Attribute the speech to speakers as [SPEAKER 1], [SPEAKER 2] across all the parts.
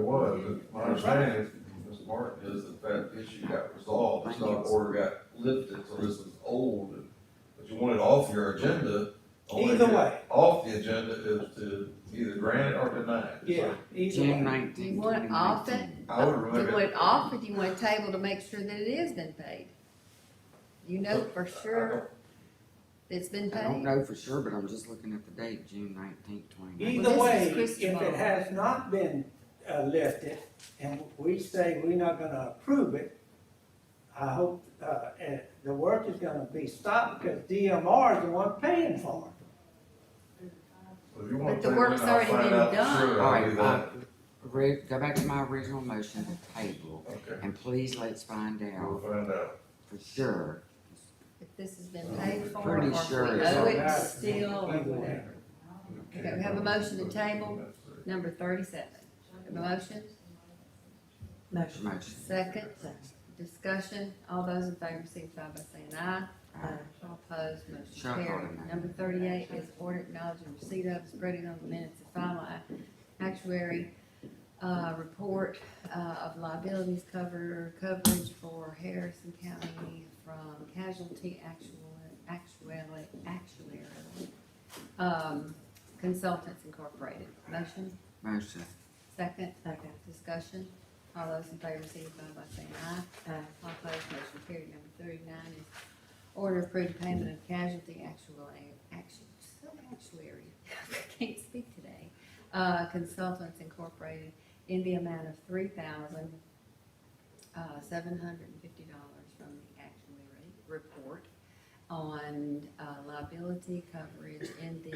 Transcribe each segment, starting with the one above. [SPEAKER 1] was, but my understanding is, Mr. Martin, is that that issue got resolved, the stop order got lifted, so this is old. But you want it off your agenda. only
[SPEAKER 2] Either
[SPEAKER 1] to get
[SPEAKER 2] way.
[SPEAKER 1] Off the agenda is to either grant it or deny it.
[SPEAKER 2] Yeah, either
[SPEAKER 3] June
[SPEAKER 2] way.
[SPEAKER 3] nineteenth.
[SPEAKER 4] Do you want it off it?
[SPEAKER 1] I would
[SPEAKER 4] Do
[SPEAKER 1] remove
[SPEAKER 4] you
[SPEAKER 1] it.
[SPEAKER 4] want it off or do you want a table to make sure that it is been paid? You know for sure that it's been
[SPEAKER 3] I don't
[SPEAKER 4] paid?
[SPEAKER 3] know for sure, but I'm just looking at the date, June nineteenth, twenty nineteen.
[SPEAKER 2] Either
[SPEAKER 4] Well,
[SPEAKER 2] way,
[SPEAKER 4] this is
[SPEAKER 2] if
[SPEAKER 4] Christian law.
[SPEAKER 2] it has not been uh, lifted and we say we're not gonna approve it, I hope, uh, eh, the work is gonna be stopped because DMR is the one paying for it.
[SPEAKER 1] If you want
[SPEAKER 4] But
[SPEAKER 1] to put
[SPEAKER 4] the
[SPEAKER 1] it
[SPEAKER 4] work's
[SPEAKER 1] in, I'll
[SPEAKER 4] already
[SPEAKER 1] find
[SPEAKER 4] been
[SPEAKER 1] out
[SPEAKER 4] done.
[SPEAKER 1] for sure,
[SPEAKER 3] All
[SPEAKER 1] I'll do
[SPEAKER 3] right,
[SPEAKER 1] that.
[SPEAKER 3] uh, re- go back to my original motion to table,
[SPEAKER 1] Okay,
[SPEAKER 3] and please let's find
[SPEAKER 1] we'll
[SPEAKER 3] out
[SPEAKER 1] find out.
[SPEAKER 3] for sure.
[SPEAKER 4] If this has been paid for or
[SPEAKER 3] Pretty
[SPEAKER 4] if we
[SPEAKER 3] sure it's
[SPEAKER 4] owe it
[SPEAKER 2] not.
[SPEAKER 4] still or
[SPEAKER 2] Either way.
[SPEAKER 4] whatever. Okay, we have a motion to table. Number thirty-seven. Have a motion?
[SPEAKER 3] Your Motion.
[SPEAKER 4] Second, discussion, all those in favor signify by saying aye.
[SPEAKER 3] All right.
[SPEAKER 4] All opposed, motion
[SPEAKER 3] Shall call
[SPEAKER 4] carried.
[SPEAKER 3] it.
[SPEAKER 4] Number thirty-eight is order acknowledging receipt of, spreading on the minutes, the final ac- actuary, uh, report, uh, of liabilities cover, coverage for Harrison County from casualty actual, actually, actuary, um, consultants incorporated. Motion?
[SPEAKER 3] Motion.
[SPEAKER 4] Second. Second. Discussion, all those in favor signify by saying aye. Aye. All opposed, motion carried. Number thirty-nine is order approving payment of casualty actual, action, so actuary, I can't speak today. Uh, Consultants Incorporated in the amount of three thousand, uh, seven hundred and fifty dollars from the actuary report on, uh, liability coverage in the,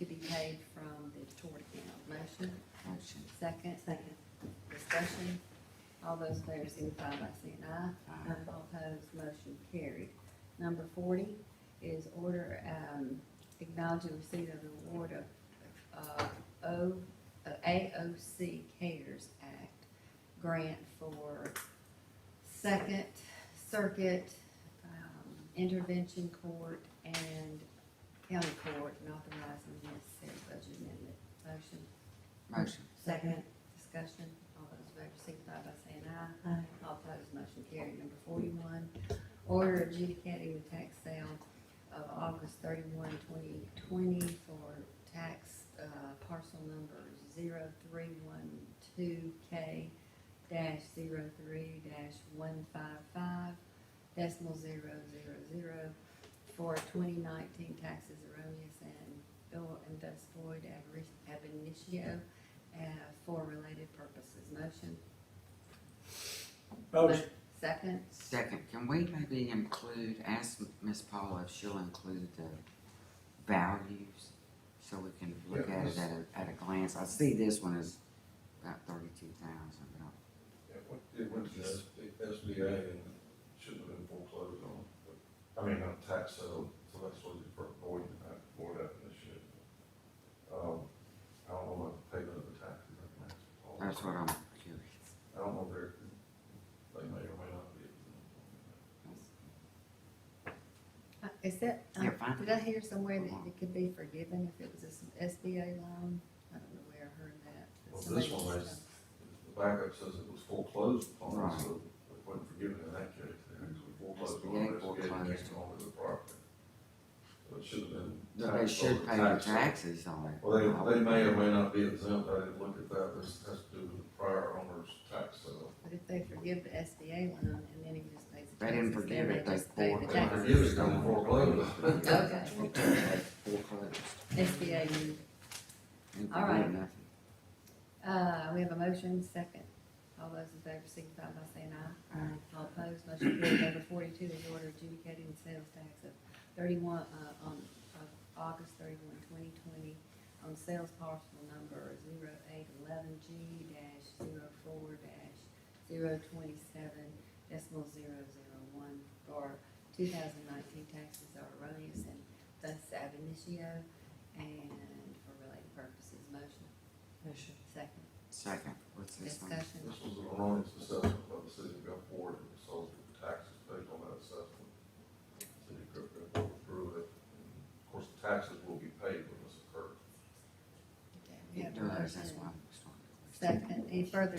[SPEAKER 4] to be paid from the tort account. Motion?
[SPEAKER 3] Motion.
[SPEAKER 4] Second. Second. Discussion, all those in favor signify by saying aye.
[SPEAKER 3] Aye.
[SPEAKER 4] All opposed, motion carried. Number forty is order, um, acknowledging receipt of the award of, uh, O, uh, AOC Cares Act grant for Second Circuit, um, Intervention Court and County Court, and authorizing necessary budget amendment. Motion?
[SPEAKER 3] Motion.
[SPEAKER 4] Second. Discussion, all those in favor signify by saying aye. Aye. All opposed, motion carried. Number forty-one, order adjudicating the tax sale of August 31, 2020, for tax, uh, parcel number zero three one two K dash zero three dash one five five decimal zero zero zero for twenty nineteen taxes erroneous and bill and thus void ab init- ab initio uh, for related purposes. Motion?
[SPEAKER 2] Motion,
[SPEAKER 4] Second?
[SPEAKER 3] Second, can we maybe include, ask Ms. Paula if she'll include the values? So we can look
[SPEAKER 1] Yeah,
[SPEAKER 3] at
[SPEAKER 1] let's-
[SPEAKER 3] it at a, at a glance. I see this one is about thirty-two thousand, but I'll
[SPEAKER 1] It went- It went to S- SBA and should have been foreclosed on, but, I mean, on tax sale, so that's what you're avoiding, that for that initiative. Um, I don't know what the payment of the taxes, I can ask Paul.
[SPEAKER 3] That's what I'm curious.
[SPEAKER 1] I don't know if they're, they may or may not be.
[SPEAKER 4] Uh, Is that, uh,
[SPEAKER 3] Yeah, fine.
[SPEAKER 4] did I hear somewhere that it could be forgiven if it was a s- SBA loan? I don't know where I heard that. but
[SPEAKER 1] Well,
[SPEAKER 4] somebody
[SPEAKER 1] this one
[SPEAKER 4] said
[SPEAKER 1] is,
[SPEAKER 4] something.
[SPEAKER 1] the backup says it was foreclosed upon,
[SPEAKER 3] Right.
[SPEAKER 1] so it wasn't forgiven in that case, it was foreclosed on,
[SPEAKER 3] SBA
[SPEAKER 1] SBA
[SPEAKER 3] foreclosed.
[SPEAKER 1] came on with the property. So it should have been.
[SPEAKER 3] But they
[SPEAKER 1] taxed
[SPEAKER 3] should
[SPEAKER 1] over
[SPEAKER 3] pay the
[SPEAKER 1] tax sale.
[SPEAKER 3] taxes on it.
[SPEAKER 1] Well, they, they may or may not be exempt, I didn't look at that, this has to do with the prior owner's tax sale.
[SPEAKER 4] But if they forgive the SBA loan and then he just pays the taxes.
[SPEAKER 3] They didn't forgive
[SPEAKER 4] then
[SPEAKER 3] it, they
[SPEAKER 4] just pay the
[SPEAKER 3] bought it.
[SPEAKER 1] They
[SPEAKER 4] taxes.
[SPEAKER 1] forgive it, then foreclose it.
[SPEAKER 4] Okay,
[SPEAKER 3] Foreclosed.
[SPEAKER 4] SBA loan.
[SPEAKER 3] Ain't
[SPEAKER 4] All right.
[SPEAKER 3] doing nothing.
[SPEAKER 4] Uh, we have a motion, second. All those in favor signify by saying aye. Aye. All opposed, motion carried. Number forty-two is order adjudicating the sales tax of thirty-one, uh, on, of August thirty-one, twenty twenty, on sales parcel number zero eight eleven G dash zero four dash zero twenty-seven decimal zero zero one for two thousand nineteen taxes are erroneous and thus ab initio and for related purposes. Motion? Motion. Second.
[SPEAKER 3] Second, what's this one?
[SPEAKER 4] Discussion,
[SPEAKER 1] This was an erroneous assessment by the city of Gulfport, and so the taxes paid on that assessment. City of Gulfport approved it, and of course, the taxes will be paid when this occurs.
[SPEAKER 4] we
[SPEAKER 3] It
[SPEAKER 4] have a
[SPEAKER 3] does, that's
[SPEAKER 4] motion.
[SPEAKER 3] why I'm starting to question.
[SPEAKER 4] Second, any further